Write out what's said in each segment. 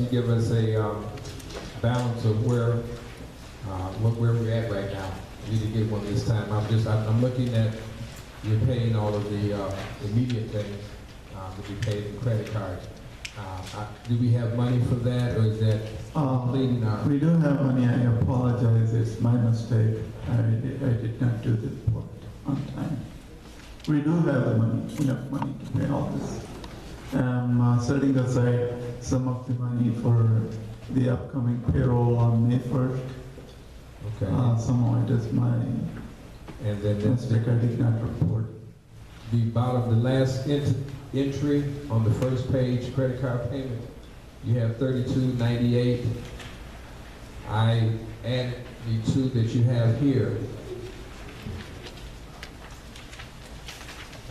You give us a um, balance of where, uh, what- where we're at right now. You need to get one this time. I'm just, I'm I'm looking at, you're paying all of the uh, immediate things uh, that you paid in credit card. Uh, I- Do we have money for that, or is that Uh, completing our? We do have money, I apologize, it's my mistake. I did, I did not do the report on time. We do have the money, we have money to pay all this. I'm uh, setting aside some of the money for the upcoming payroll on May 1st. Uh, Okay. Some of it is my And then that's the mistake, I did not report. the bottom, the last ent- entry on the first page, credit card payment, you have thirty-two ninety-eight. I add the two that you have here.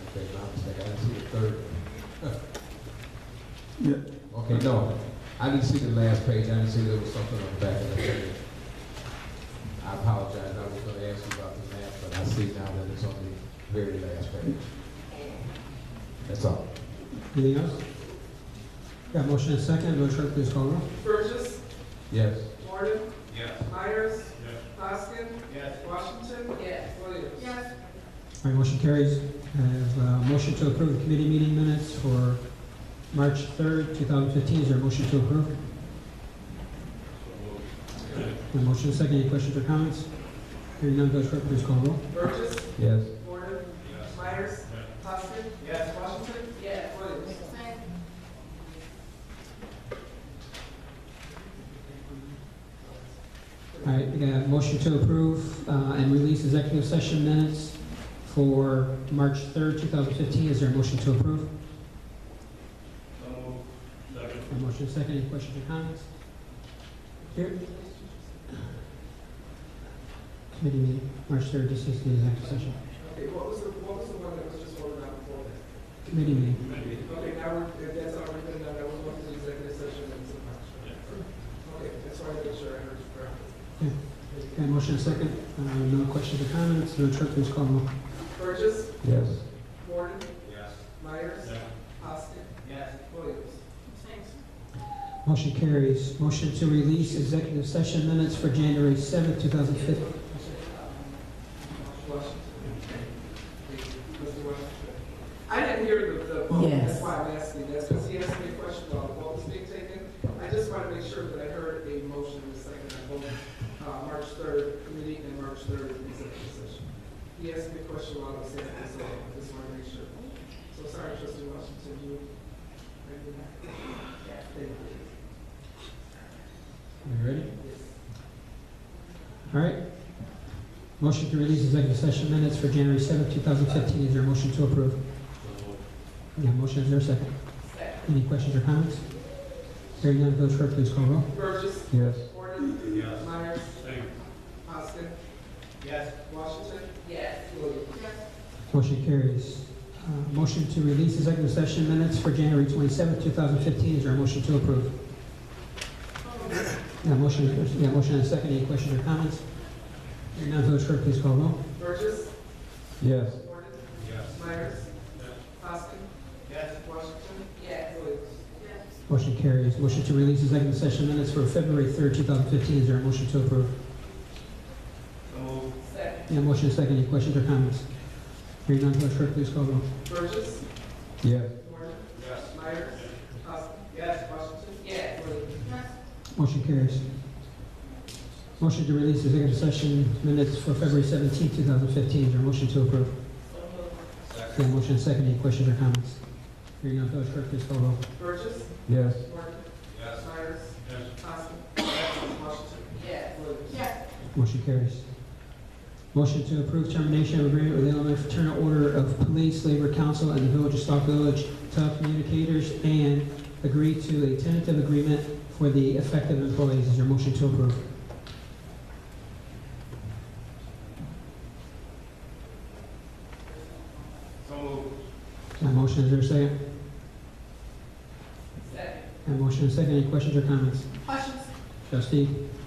Okay, my mistake, I didn't see the third. Yeah, Okay, no, I didn't see the last page, I didn't see there was something on the back of the page. I apologize, I was gonna ask you about the math, but I see now that it's on the very last page. That's all. Anything else? Got motion and second, Madam Clerk, please call roll. Burgess. Yes. Gordon. Yes. Myers. Yes. Hoskin. Yes. Washington. Yes. Williams. Yes. All right, motion carries. I have a motion to approve the committee meeting minutes for March 3rd, 2015. Is there a motion to approve? The motion is second. Any questions or comments? Hearing none, Madam Clerk, please call roll. Burgess. Yes. Gordon. Myers. Hoskin. Yes. Washington. Yes. Williams. All right, we got a motion to approve uh, and release executive session minutes for March 3rd, 2015. Is there a motion to approve? So moved. Second. A motion is second. Any questions or comments? Here. Committee meeting, March 3rd, this is the executive session. Okay, what was the, what was the one that was just voted on before that? Committee meeting. Okay, now we're, if that's already been done, that was one of the executive session minutes of March. Okay, that's why I made sure I heard Yeah. you correctly. Got a motion is second. Uh, No questions or comments. Madam Clerk, please call roll. Burgess. Yes. Gordon. Yes. Myers. Yes. Hoskin. Yes. Williams. Motion carries. Motion to release executive session minutes for January 7th, 2015. Washington. Mr. Washington. I didn't hear the, the vote, that's Yes. why I'm asking, that's because he asked me a question about the vote was being taken. I just want to make sure that I heard a motion in the second, I voted, uh, March third committee and March third executive session. He asked me a question while I was saying this, so I just want to make sure. So sorry, trustee Washington, you. Thank you. Are you ready? Yes. All right. Motion to release executive session minutes for January 7th, 2015. Is there a motion to approve? So moved. Yeah, motion is there a second? Any questions or comments? Hearing none, Village Clerk, please call roll. Burgess, Yes. Gordon, Yes. Myers, Second. Hoskin, Yes. Washington. Yes. Williams. Motion carries. Uh, Motion to release executive session minutes for January 27th, 2015. Is there a motion to approve? Yeah, motion, is there- yeah, motion and a second. Any questions or comments? Hearing none, Village Clerk, please call roll. Burgess, Yes. Gordon, Yes. Myers, Yes. Hoskin, Yes. Washington. Yes. Williams. Motion carries. Motion to release executive session minutes for February 3rd, 2015. Is there a motion to approve? So moved. Second. Yeah, motion is second. Any questions or comments? Hearing none, Village Clerk, please call roll. Burgess, Yes. Gordon, Yes. Myers, Hoskin. Yes. Washington. Yes. Williams. Motion carries. Motion to release executive session minutes for February 17th, 2015. Is there a motion to approve? Second. Yeah, motion is second. Any questions or comments? Hearing none, Village Clerk, please call roll. Burgess, Yes. Gordon, Yes. Myers, Yes. Hoskin. Yes. Washington. Yes. Williams. Motion carries. Motion to approve termination of agreement with the Illinois Fraternal Order of Police, Labor Council, and the Village of Stock Village Telecommunicators, and agree to a tentative agreement for the effective employees. Is there a motion to approve? So moved. My motion, is there a second? Second. My motion is second. Any questions or comments? Questions? Trustee uh, um,